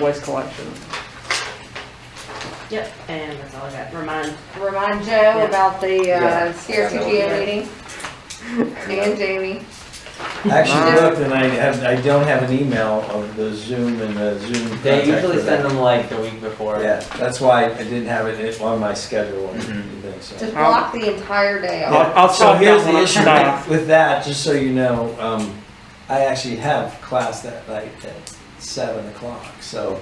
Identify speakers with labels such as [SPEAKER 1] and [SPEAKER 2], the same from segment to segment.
[SPEAKER 1] waste collection.
[SPEAKER 2] Yep, and that's all I got. Remind,
[SPEAKER 3] Remind
[SPEAKER 2] Yeah.
[SPEAKER 3] Joe about the uh,
[SPEAKER 4] Yeah.
[SPEAKER 3] CRTG meeting and Jamie.
[SPEAKER 4] Actually looked and I have, I don't have an email of the Zoom and the Zoom contact.
[SPEAKER 5] They usually
[SPEAKER 4] for
[SPEAKER 5] send
[SPEAKER 4] that.
[SPEAKER 5] them like the week before.
[SPEAKER 4] Yeah, that's why I didn't have it in- on my schedule or
[SPEAKER 5] Mhm.
[SPEAKER 4] anything, so.
[SPEAKER 3] Just block the entire day off.
[SPEAKER 1] I'll- I'll
[SPEAKER 4] So
[SPEAKER 1] talk
[SPEAKER 4] here's
[SPEAKER 1] that one
[SPEAKER 4] the
[SPEAKER 1] up
[SPEAKER 4] issue
[SPEAKER 1] now.
[SPEAKER 4] with- with that, just so you know, um, I actually have class that night at seven o'clock, so,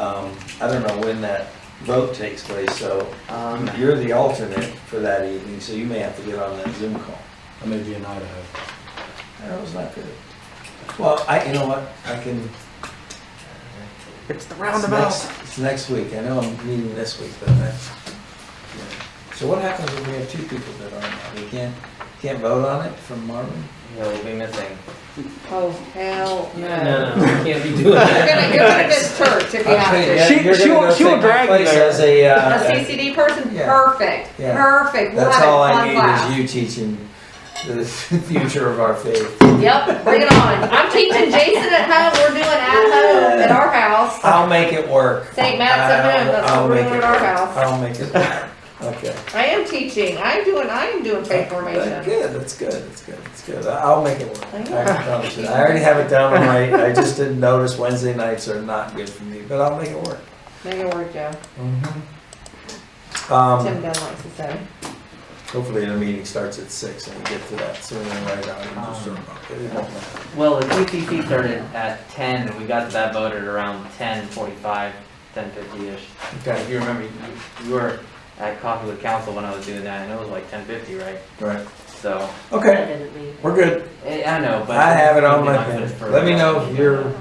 [SPEAKER 4] um, I don't know when that vote takes place, so
[SPEAKER 5] Um,
[SPEAKER 4] you're the alternate for that evening, so you may have to get on that Zoom call.
[SPEAKER 6] I may be in Idaho.
[SPEAKER 4] That was not good. Well, I, you know what, I can.
[SPEAKER 1] It's the
[SPEAKER 4] it's
[SPEAKER 1] roundabout.
[SPEAKER 4] next- It's next week, I know I'm meeting this week, but I. yeah. So what happens when we have two people that aren't, we can't, can't vote on it from Marvin?
[SPEAKER 5] he'll be missing.
[SPEAKER 3] Oh, hell no.
[SPEAKER 5] No, no, we can't be doing
[SPEAKER 3] You're
[SPEAKER 5] that.
[SPEAKER 3] gonna, you're gonna miss church if you
[SPEAKER 4] I'll tell you,
[SPEAKER 3] have
[SPEAKER 4] yeah,
[SPEAKER 3] to.
[SPEAKER 1] She-
[SPEAKER 4] you're
[SPEAKER 1] she
[SPEAKER 4] gonna
[SPEAKER 1] will-
[SPEAKER 4] go
[SPEAKER 1] she will
[SPEAKER 4] take my
[SPEAKER 1] drag you
[SPEAKER 4] place
[SPEAKER 1] there.
[SPEAKER 4] As a,
[SPEAKER 3] A
[SPEAKER 4] uh,
[SPEAKER 3] CCD person,
[SPEAKER 4] Yeah.
[SPEAKER 3] perfect,
[SPEAKER 4] Yeah.
[SPEAKER 3] perfect. We'll
[SPEAKER 4] that's
[SPEAKER 3] have
[SPEAKER 4] all
[SPEAKER 3] a
[SPEAKER 4] I
[SPEAKER 3] fun
[SPEAKER 4] need is
[SPEAKER 3] class.
[SPEAKER 4] you teaching the future of our faith.
[SPEAKER 3] Yep, bring it on. I'm teaching Jason at home, we're doing at home at our house.
[SPEAKER 4] I'll make it work.
[SPEAKER 3] St. Matt's at home,
[SPEAKER 4] I'll-
[SPEAKER 3] that's what
[SPEAKER 4] I'll
[SPEAKER 3] we're
[SPEAKER 4] make
[SPEAKER 3] doing at
[SPEAKER 4] it
[SPEAKER 3] our
[SPEAKER 4] work.
[SPEAKER 3] house.
[SPEAKER 4] I'll make it work, okay.
[SPEAKER 3] I am teaching, I'm doing, I am doing faith
[SPEAKER 4] That's
[SPEAKER 3] formation.
[SPEAKER 4] Good, that's good, that's good, that's good. I- I'll make it work. I
[SPEAKER 3] I know.
[SPEAKER 4] can promise you. I already have it down on my, I just didn't notice Wednesday nights are not good for me, but I'll make it work.
[SPEAKER 3] Make it work, Joe. Tim
[SPEAKER 4] Um,
[SPEAKER 3] Dunn likes to say.
[SPEAKER 4] hopefully the meeting starts at six and we get to that sooner than later. I can just sort of- it won't matter.
[SPEAKER 5] Well, the TCC started at ten, and we got to that vote at around ten forty-five, ten fifty-ish. If
[SPEAKER 4] Okay,
[SPEAKER 5] you remember, you, you were at coffee with council when I was doing that, and it was like ten fifty, right?
[SPEAKER 4] right,
[SPEAKER 5] So,
[SPEAKER 2] I
[SPEAKER 4] okay,
[SPEAKER 2] didn't leave.
[SPEAKER 4] we're good.
[SPEAKER 5] I, I know, but.
[SPEAKER 4] I have it on my,
[SPEAKER 5] Something like this for-
[SPEAKER 4] let me know if your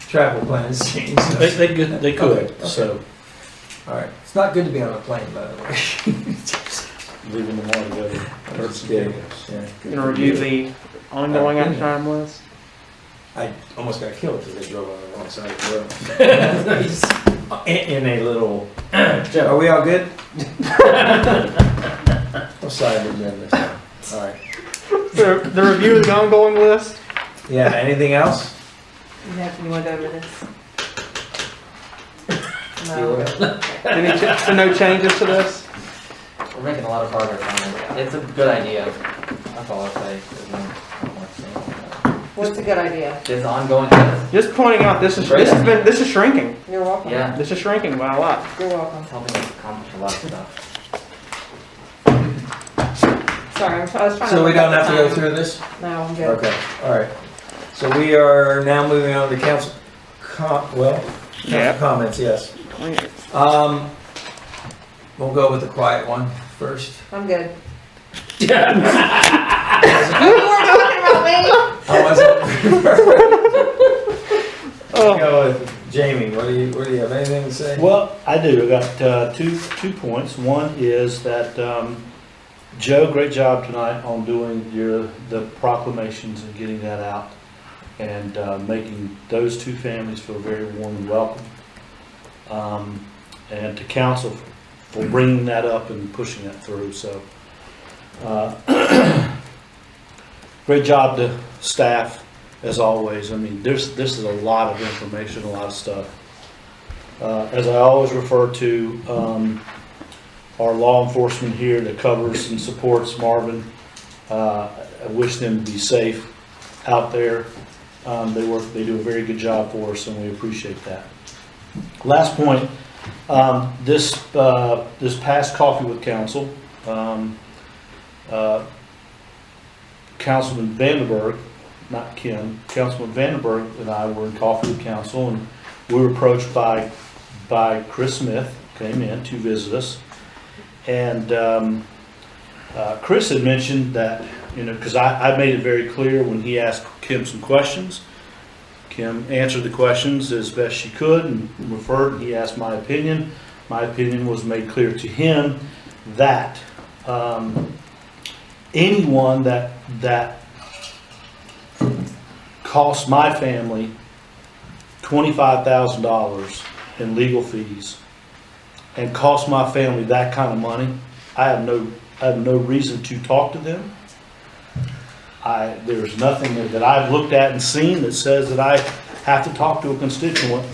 [SPEAKER 4] travel plans change.
[SPEAKER 6] They, they could, they could,
[SPEAKER 4] Okay.
[SPEAKER 6] so
[SPEAKER 4] All right, it's not good to be on a plane, by the way.
[SPEAKER 6] leaving tomorrow to go to Turks and Caicos.
[SPEAKER 4] Yeah.
[SPEAKER 1] Gonna review the ongoing action item list.
[SPEAKER 4] I almost got killed because I drove on the wrong side of the road. In, in a little, are we all good? I'm sorry, I'm doing this. All right.
[SPEAKER 1] The, the review of the ongoing list?
[SPEAKER 4] Yeah, anything else?
[SPEAKER 3] You have, you wanna go over this?
[SPEAKER 4] You
[SPEAKER 3] No.
[SPEAKER 4] wanna-
[SPEAKER 1] Any, ch- so no changes to this?
[SPEAKER 5] We're making a lot of progress on it. It's a good idea. That's all I'll say. There's no- no more to say about that.
[SPEAKER 3] What's a good idea?
[SPEAKER 5] This ongoing, test,
[SPEAKER 1] Just pointing out, this is, this has been, this is shrinking.
[SPEAKER 3] You're welcome.
[SPEAKER 5] yeah,
[SPEAKER 1] This is shrinking by a lot.
[SPEAKER 3] You're welcome.
[SPEAKER 5] it's helping us accomplish a lot of stuff.
[SPEAKER 3] Sorry, I'm- I was trying to.
[SPEAKER 4] So we
[SPEAKER 3] look up
[SPEAKER 4] don't
[SPEAKER 3] the
[SPEAKER 4] have to go
[SPEAKER 3] time.
[SPEAKER 4] through this?
[SPEAKER 3] No, I'm good.
[SPEAKER 4] Okay, all right. So we are now moving on to council com, well,
[SPEAKER 1] Yeah.
[SPEAKER 4] comments, yes. Um, we'll go with the quiet one first.
[SPEAKER 3] I'm good. You were talking about me.
[SPEAKER 4] I wasn't.
[SPEAKER 1] Oh.
[SPEAKER 4] Go with Jamie, what do you, what do you have, anything to say?
[SPEAKER 6] Well, I do, I got uh, two, two points. One is that, um, Joe, great job tonight on doing your, the proclamations and getting that out and uh, making those two families feel very warm and welcome. Um, And to council for bringing that up and pushing that through, so. uh, Great job to staff, as always. I mean, there's, this is a lot of information, a lot of stuff. Uh, As I always refer to, um, our law enforcement here that covers and supports Marvin, uh, I wish them to be safe out there. Um, They work, they do a very good job for us, and we appreciate that. Last point, um, this, uh, this past coffee with council, um, uh, Councilman Vandenberg, not Kim, Councilman Vandenberg and I were in coffee with council, and we were approached by, by Chris Smith, came in to visit us. And um, uh, Chris had mentioned that, you know, because I, I made it very clear when he asked Kim some questions. Kim answered the questions as best she could and referred, and he asked my opinion. My opinion was made clear to him that um, anyone that, that costs my family twenty-five thousand dollars in legal fees and cost my family that kind of money, I have no, I have no reason to talk to them. I, there's nothing that I've looked at and seen that says that I have to talk to a constituent